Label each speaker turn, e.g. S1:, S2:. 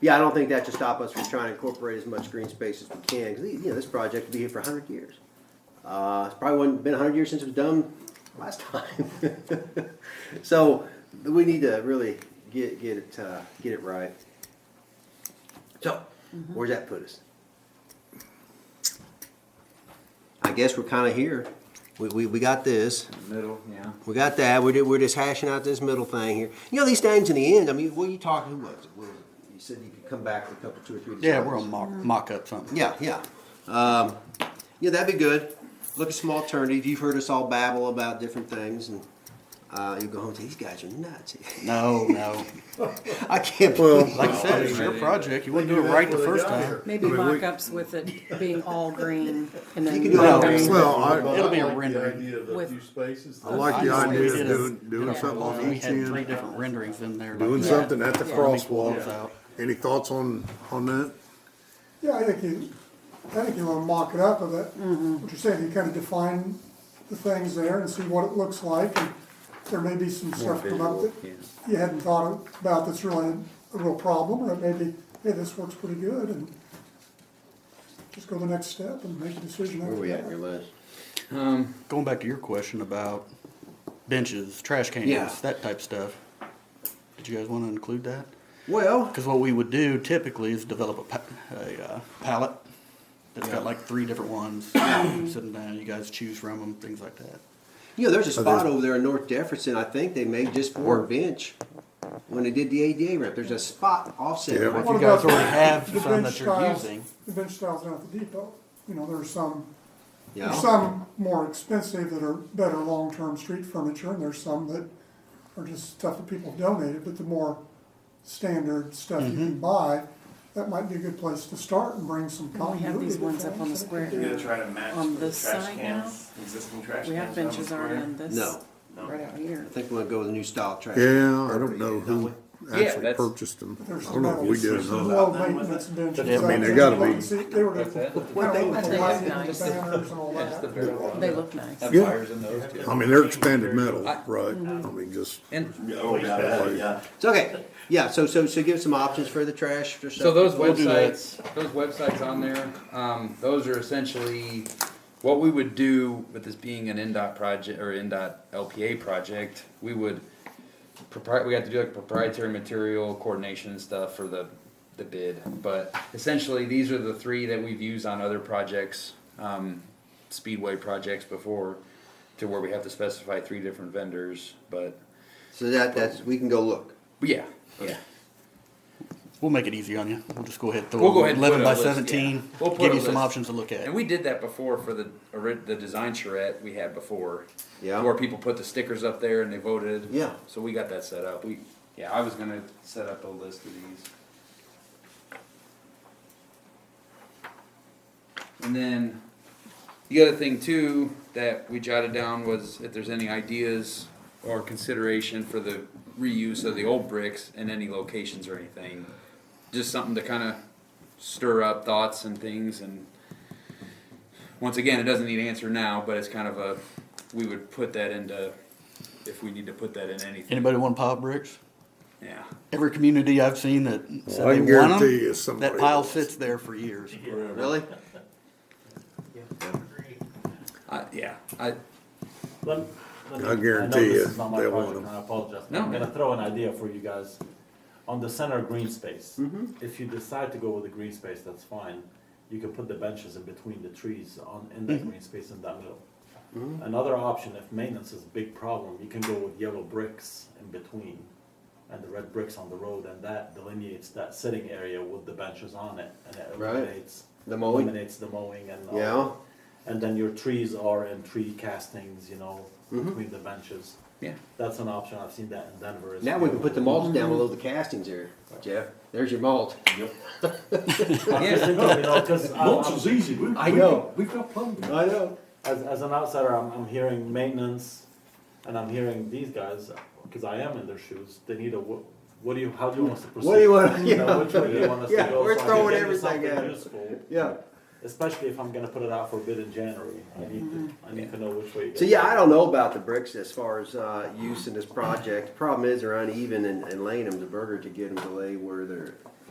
S1: yeah, I don't think that should stop us from trying to incorporate as much green space as we can, because, you know, this project will be here for hundred years. Uh, it's probably wasn't been hundred years since it was done last time. So, we need to really get, get it, uh, get it right. So, where's that put us? I guess we're kinda here, we, we, we got this.
S2: Middle, yeah.
S1: We got that. We're, we're just hashing out this middle thing here. You know, these things in the end, I mean, what are you talking, who was it? Well, you said you could come back with a couple, two or three.
S3: Yeah, we're
S1: designs.
S3: gonna mock, mock up something.
S1: Yeah, yeah. Um, yeah, that'd be good. Look at some alternatives. You've heard us all babble about different things and, uh, you go home and say, these guys are nuts.
S3: No, no.
S1: I can't believe.
S3: Like I said, it's your project. You wouldn't do it right the first time.
S4: Maybe mock-ups with it being all green and then.
S1: You can do it all
S4: green.
S1: green.
S5: Well, I,
S3: It'll be a rendering.
S6: Idea of a
S4: With-
S6: few spaces.
S5: I like the
S3: Honestly, we
S5: idea
S3: did
S5: of
S3: a-
S5: doing, doing
S3: Yeah,
S5: something
S3: well,
S5: on
S3: We
S5: each
S3: had three
S5: end,
S3: different renderings in there.
S5: doing
S3: Yeah.
S5: something at the
S3: Yeah.
S5: crosswalk. Any thoughts on, on that?
S7: Yeah, I think you, I think you wanna mock it up a bit. What you're saying, you kinda define the things there and see what it looks like, and there may be some stuff come up that you hadn't thought about that's really a real problem, or it may be, hey, this works pretty good, and just go the next step and make a decision after that.
S1: list?
S3: Going back to your question about benches, trash
S1: Yeah.
S3: cans, that type stuff. Did you guys wanna include that?
S1: Well,
S3: Cause what we would do typically is develop a pa- a, uh, palette that's got like three different ones, sitting down, you guys choose from them, things like that.
S1: you know, there's a spot
S5: there's-
S1: over there in North Jefferson, I think they made just for a bench. When they did the ADA rep, there's a spot offset.
S5: Yeah.
S1: right
S3: If
S7: What
S3: you guys
S7: about
S3: already have
S7: The
S3: some
S7: bench
S3: that you're
S7: styles,
S3: using,
S7: the bench styles down at the depot, you know, there's some,
S1: there, you
S7: there's
S1: know?
S7: some more expensive that are better long-term street furniture, and there's some that are just stuff that people donated, but the more standard stuff you
S3: Mm-hmm.
S7: can buy, that might be a good place to start and bring some
S4: And we
S7: continuity.
S4: have these
S7: to
S4: ones up on the
S7: things.
S4: square.
S6: You're gonna try to match
S4: On
S6: the
S4: this
S6: trash
S4: side
S6: cans, existing trash cans.
S4: We have
S6: on the
S4: benches already
S6: square.
S4: on this.
S1: No.
S4: Right out here.
S1: I think we're gonna go with a new style trash.
S5: Yeah, I don't know who
S2: Yeah,
S5: actually
S2: that's-
S5: purchased them. I
S7: There's
S5: don't know if we did or not.
S7: Low maintenance benches.
S3: I
S5: mean, they
S7: out
S5: gotta
S7: there.
S5: be-
S7: See, They were.
S2: That's it?
S7: Well, they
S4: I think
S7: were lighting
S4: it's
S7: the
S4: nice.
S7: banners and all that.
S4: They look nice.
S2: Have
S5: Yeah.
S2: fires in those too.
S5: I mean, they're expanded metal, right? I mean, just,
S2: And
S6: Oh, yeah, yeah.
S1: It's okay. Yeah, so, so, so give some options for the trash for stuff.
S2: so those
S3: We'll do that.
S2: websites, those websites on there, um, those are essentially what we would do with this being an NDOT project or NDOT LPA project. We would propri- we have to do like proprietary material coordination and stuff for the the bid. But essentially, these are the three that we've used on other projects, um, speedway projects before, to where we have to specify three different vendors. But,
S1: So that, that's, we can go look.
S2: but yeah, yeah.
S3: we'll make it easy on you, we'll just go ahead and throw.
S2: We'll go ahead and
S3: Eleven
S2: put a
S3: by
S2: list, yeah.
S3: seventeen,
S2: We'll put
S3: give
S2: a
S3: you some
S2: list.
S3: options to look at.
S2: And we did that before for the ori- the design charrette we had before.
S1: Yeah.
S2: Where people put the stickers up there and they voted.
S1: Yeah.
S2: So we got that set up. We yeah, I was gonna set up a list of these. And then the other thing too that we jotted down was if there's any ideas or consideration for the reuse of the old bricks in any locations or anything. Just something to kind of stir up thoughts and things and once again, it doesn't need answer now, but it's kind of a, we would put that into, if we need to put that in anything,
S3: Anybody want to pile bricks?
S2: yeah.
S3: Every community I've seen that said
S5: I
S3: they want
S5: can
S3: 'em,
S5: guarantee you somebody
S3: that pile
S5: will.
S3: sits there for years.
S1: Really?
S2: I, yeah, I,
S8: Let- let me-
S5: I guarantee
S8: know this
S5: you,
S8: is not my
S5: they want
S8: project,
S5: 'em.
S8: and I apologize.
S2: No.
S8: I'm gonna throw an idea for you guys. On the center green space,
S1: Mm-hmm.
S8: if you decide to go with the green space, that's fine. You can put the benches in between the trees on, in
S1: Mm-hmm.
S8: that green space in that middle. Another option, if maintenance is a big problem, you can go with yellow bricks in between and the red bricks on the road, and that delineates that sitting area with the benches on it, and it
S1: Right.
S8: eliminates,
S1: The mowing.
S8: eliminates the mowing and all
S1: Yeah.
S8: and then your trees are in tree castings, you know,
S1: Mm-hmm.
S8: between the benches.
S2: yeah.
S8: That's an option. I've seen that in Denver. as
S1: Now we
S8: well.
S1: can put the mulch down below the castings here, Jeff. There's your mulch.
S8: I'm just thinking, you know, 'cause I'm- I'm-
S6: easy. We-
S8: I
S6: we-
S8: know.
S6: We've got plumbing.
S1: I know.
S8: as, as an outsider, I'm, I'm hearing maintenance, and I'm hearing these guys because I am in their shoes. They need a what? What do you? How do you want us to proceed?
S1: What do you want-
S8: You know, which way do you want us
S1: Yeah,
S8: to go?
S1: we're
S8: So I can
S1: throwing
S8: give you
S1: everything
S8: something
S1: at it.
S8: useful,
S1: Yeah.
S8: Especially if I'm going to put it out for bid in January. I need to. I need to know which way.
S1: So yeah, I don't know about the bricks as far as uh, use in this project. Problem is they're uneven and, and laying them to Burger to get them to lay where they're